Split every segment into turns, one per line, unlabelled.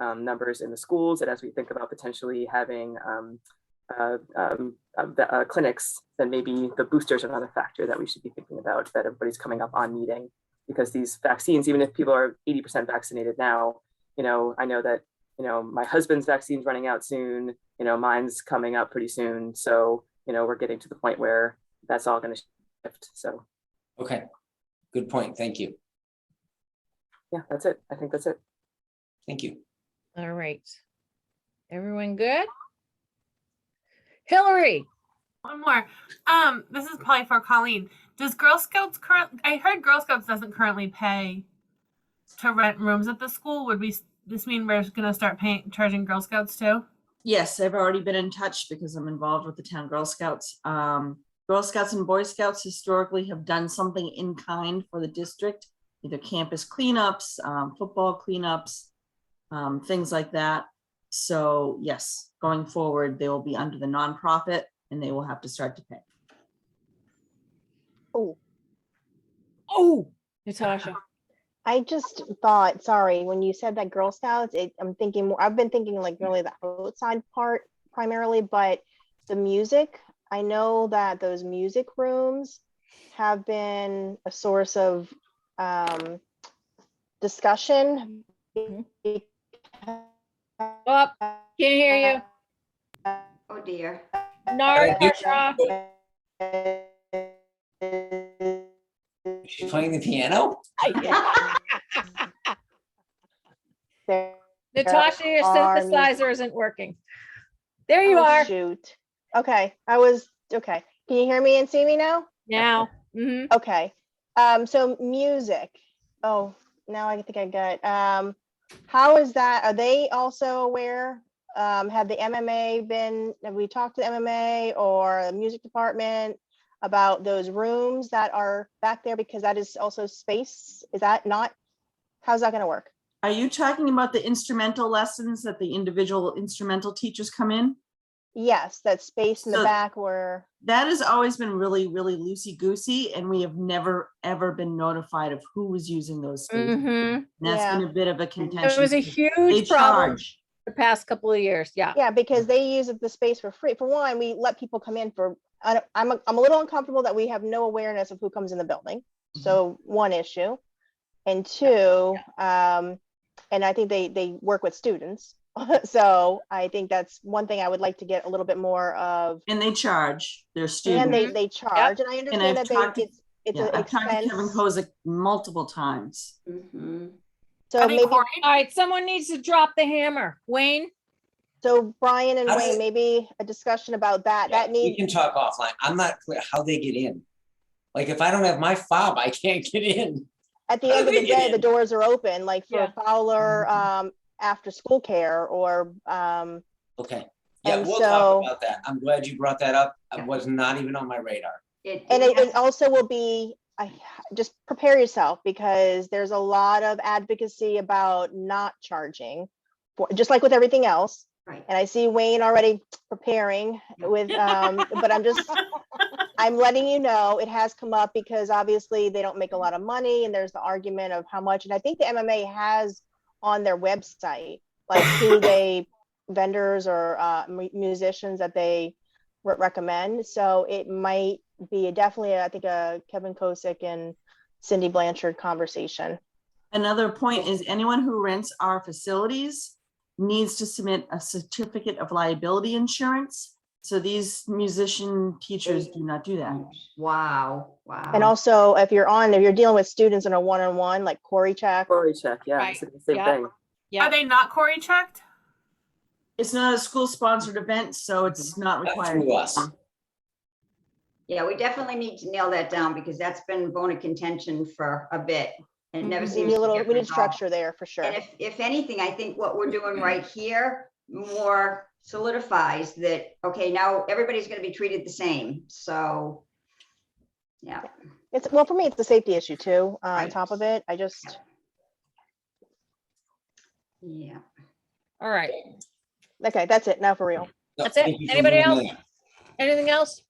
um, numbers in the schools and as we think about potentially having um, uh, um, uh, the, uh, clinics, then maybe the boosters are another factor that we should be thinking about that everybody's coming up on needing. Because these vaccines, even if people are 80% vaccinated now, you know, I know that, you know, my husband's vaccine's running out soon, you know, mine's coming up pretty soon. So, you know, we're getting to the point where that's all going to shift. So,
Okay, good point. Thank you.
yeah, that's it. I think that's it.
Thank you.
All right. Everyone good? Hillary,
One more. Um, this is probably for Colleen. Does Girl Scouts current? I heard Girl Scouts doesn't currently pay to rent rooms at the school. Would we? s- This mean we're just gonna start paying charging Girl Scouts too?
Yes, I've already been in touch because I'm involved with the town Girl Scouts. Um, Girl Scouts and Boy Scouts historically have done something in kind for the district, either campus cleanups, um, football cleanups, um, things like that. So yes, going forward, they will be under the nonprofit and they will have to start to pay.
oh, Natasha,
I just thought, sorry, when you said that Girl Scouts, it, I'm thinking more, I've been thinking like really the outside part primarily, but the music, I know that those music rooms have been a source of um, discussion.
Mhm. up, can't hear
Oh dear.
you. Narsha,
Is she playing the piano?
Natasha, your
are
synthesizer isn't working. There you
Oh,
are
Shoot. Okay, I was, okay. Can you hear me and see me now?
now. hmm
Okay. Um, so music. Oh, now I think I got, um, how is that? Are they also aware? Um, have the MMA been, have we talked to the MMA or the music department about those rooms that are back there? Because that is also space. Is that not, how's that gonna work?
Are you talking about the instrumental lessons that the individual instrumental teachers come in?
Yes, that space in the
So-
back where,
that has always been really, really loosey goosey, and we have never ever been notified of who was using those spaces. And
hmm
That's
Yeah.
been a bit of a contention.
It was a
They
huge problem
charge.
the past couple of years.
Uh,
Yeah.
yeah, because they use the space for free. For one, we let people come in for, I don't- I'm, a- I'm a little uncomfortable that we have no awareness of who comes in the building.
Mm-hmm.
So one issue. And two, um, and I think they, they work with students. So I think that's one thing I would like to get a little bit more of.
And they charge their
And
students.
they, they charge and I
Mm-hmm. I've
understand that
talked to-
they, it's, it's
Yeah,
an
I've talked to Kevin
expense.
Kozik multiple times.
Mhm.
So
I think
maybe,
Corey.
All right, someone needs to drop the hammer. Wayne,
so Brian and
How does-
Wayne, maybe a discussion about that, that
We
needs,
can talk offline. I'm not clear how they get in. Like if I don't have my fob, I can't get in.
at the
how
end
do
of the
they get
day, the
in?
doors are open, like for
Yeah.
Fowler, um, after school care or, um,
Okay. Yeah,
And
we'll
so-
talk about that. I'm glad you brought that up. It
Yeah.
was not even on my radar.
It-
And it,
it-
it also will be, I, just prepare yourself because there's a lot of advocacy about not charging for, just like with everything else.
right.
And I see Wayne already preparing with, um, but I'm just, I'm letting you know it has come up because obviously they don't make a lot of money and there's the argument of how much. And I think the MMA has on their website, like who they vendors or uh, mu- musicians that they re- recommend. So it might be definitely, I think, a Kevin Kosick and Cindy Blanchard conversation.
Another point is anyone who rents our facilities needs to submit a certificate of liability insurance. So these musician teachers do not do that.
Wow, wow.
And also, if you're on, if you're dealing with students in a one-on-one, like Corey Check,
Quality check. Yeah,
Right.
it's the same
Yeah.
thing.
Yeah.
Are they not Corey checked?
It's not a school sponsored event, so it's not
Mm-hmm. Not
required.
through us.
Yeah, we definitely need to nail that down because that's been a bone of contention for a bit. And it never
we
seems.
Mm-hmm. need a
to
little,
get
we need
resolved.
structure Mm-hmm. there for sure.
And if, if anything, I think what we're doing right here more solidifies that, okay, now everybody's going to be treated the same. So, yeah.
It's, well, for me, it's a safety issue too, uh, on
Right.
top of it. I just,
Yeah.
All right.
okay, that's it. Now for real.
No,
That's it.
thank you for
Anybody
moving
else?
in.
Anything else?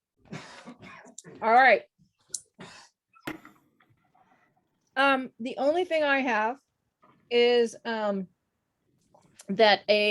All right. Um, the only thing I have is, um, that a